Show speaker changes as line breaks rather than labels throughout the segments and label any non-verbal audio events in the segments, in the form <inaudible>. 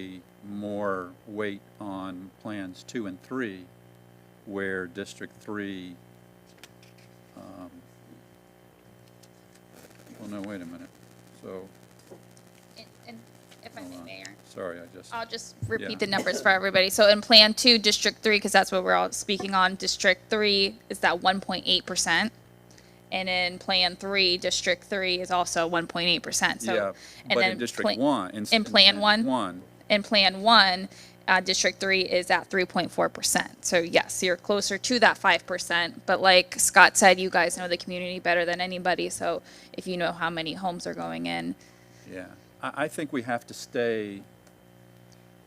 a more weight on plans two and three, where District Three, um, well, no, wait a minute, so,
And- And if I
hold
may,
on.
Mayor,
sorry, I just,
I'll just
Yeah.
repeat the numbers for everybody. So in Plan Two, District Three, because that's what we're all speaking on, District Three is that one point eight percent. And in Plan Three, District Three is also one point eight percent,
yeah,
so. and
but
then
in District
Plan-
One. s-
in Plan One?
One,
In Plan One, uh, District Three is at three point four percent. So yes, you're closer to that five percent, but like Scott said, you guys know the community better than anybody, so if you know how many homes are going in,
yeah. I, I think we have to stay,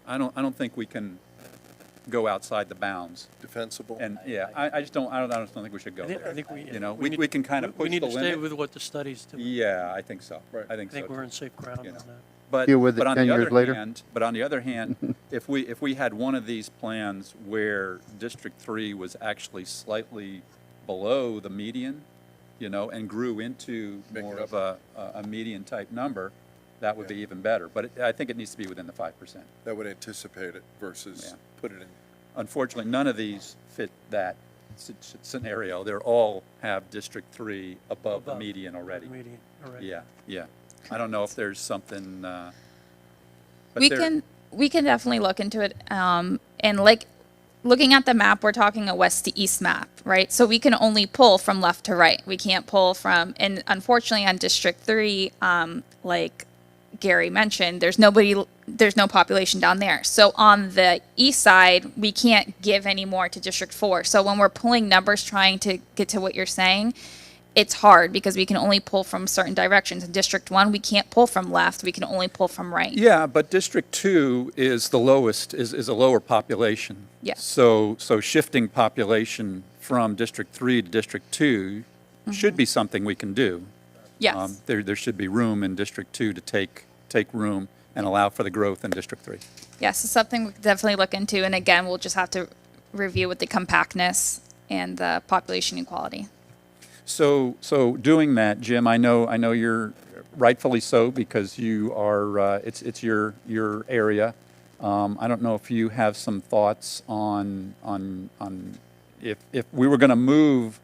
I don't, I don't think we can go outside the bounds.
defensible.
And, yeah, I, I just don't, I don't, I just don't think we should go
I think, I
there.
think we.
You know, we,
need-
we can kind of
we-
push the limit.
We need to stay with what the studies do.
Yeah, I think so.
Right.
I think
I
so.
think
too.
we're on safe ground on
you know.
that.
But,
Deal with it
but on the
10 years
other
later.
hand, but on the other
<laughs>
hand, if we, if we had one of these plans where District Three was actually slightly below the median, you know, and grew into
Make it
more
up.
of a, a a median type number, that would be even better. But it- I think it needs to be within the five percent.
That would anticipate it
Yeah.
versus put it in.
Unfortunately, none of these fit that s- s- scenario. They're all have District Three above the
Above,
median already.
Median, all right.
Yeah, yeah. I don't know if there's something, uh. but
we
there-
can we can definitely look into it um, and like looking at the map we're talking a west to east map right so we can only pull from left to right we can't pull from and unfortunately on district 3 um, like gary mentioned there's nobody there's no population down there so on the east side we can't give any more to district 4 so when we're pulling numbers trying to get to what you're saying it's hard because we can only pull from certain directions in district 1 we can't pull from left we can only pull from right
Yeah, but District Two is the lowest, is, is a lower population.
Yeah.
So, so shifting population from District Three to District Two should be something we can do.
Mm-hmm. Yes.
Um, There, there should be room in District Two to take, take room and allow for the growth in District Three.
yes, it's something we could definitely look into. And again, we'll just have to review with the compactness and the population equality.
So, so doing that, Jim, I know, I know you're rightfully so because you are, uh, it's, it's your, your area. Um, I don't know if you have some thoughts on, on, on if, if we were going to move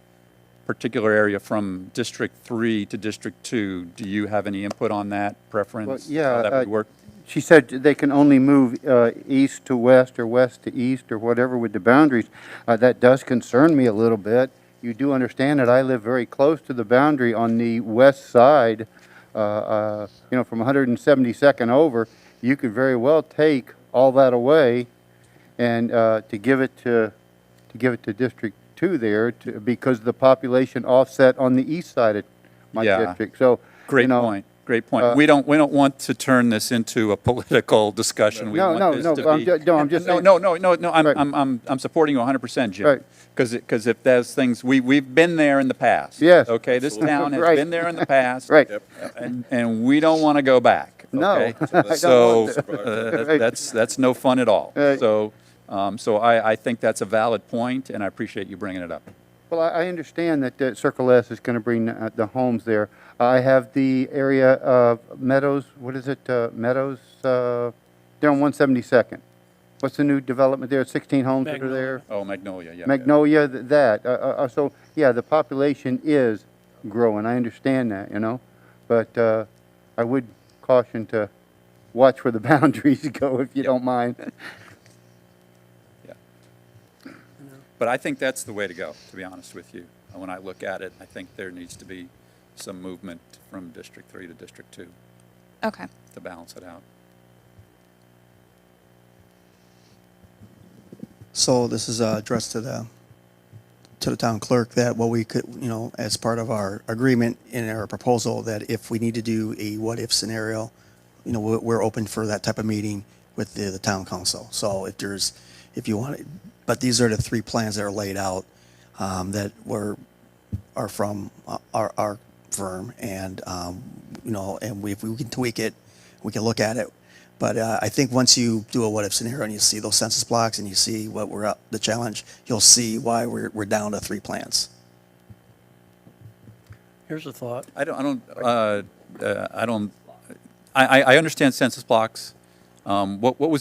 particular area from District Three to District Two, do you have any input on that preference?
Well, yeah,
How that would
uh,
work?
She said they can only move uh, east to west or west to east or whatever with the boundaries. Uh, That does concern me a little bit. You do understand that I live very close to the boundary on the west side, uh, uh, you know, from 172nd over. You could very well take all that away and uh, to give it to, to give it to District 2 there to- because the population offset on the east side of my
Yeah.
district. So, you
Great
know, uh,
point, great point. We don't, we don't want to turn this into a <laughs> political discussion. We
No,
want
no,
this
no,
to
but I'm
be-
ju- no, I'm just
No,
saying-
no, no, no, no, I'm,
Right.
I'm, I'm, I'm supporting you 100%, Jim.
Right.
Because, because if there's things, we, we've been there in the past.
Yes.
Okay, this town has
Right.
been there in the past.
<laughs> Right.
Yep.
And, and we don't want to go back.
No,
okay?
<laughs> I don't
So,
want
to.
<laughs> uh, that-
Right.
that's, that's no fun at all.
Right.
So, um, so I, I think that's a valid point, and I appreciate you bringing it up.
Well, I, I understand that uh, Circle S is going to bring uh, the homes there. I have the area of Meadows, what is it, uh, Meadows, uh, they're on 172nd. What's the new development there, 16 homes that are there?
Oh, Magnolia, yeah.
Magnolia, th- that, uh, uh, uh, so, yeah, the population is growing, I understand that, you know? But uh, I would caution to watch where the <laughs> boundaries go, if you don't mind.
Yeah. But I think that's the way to go, to be honest with you. And When I look at it, I think there needs to be some movement from District Three to District Two
Okay.
to balance it out.
So this is uh, addressed to the, to the town clerk that what we could, you know, as part of our agreement in our proposal, that if we need to do a what-if scenario, you know, we're, we're open for that type of meeting with the, the town council. So if there's, if you want, it- but these are the three plans that are laid out um, that were, are from uh, our, our firm and, um, you know, and we, if we can tweak it, we can look at it. But uh, I think once you do a what-if scenario and you see those census blocks and you see what we're up, the challenge, you'll see why we're, we're down to three plants.
Here's a thought.
I don't, I don't, uh, uh, I don't, I, I, I understand census blocks. Um, what, what was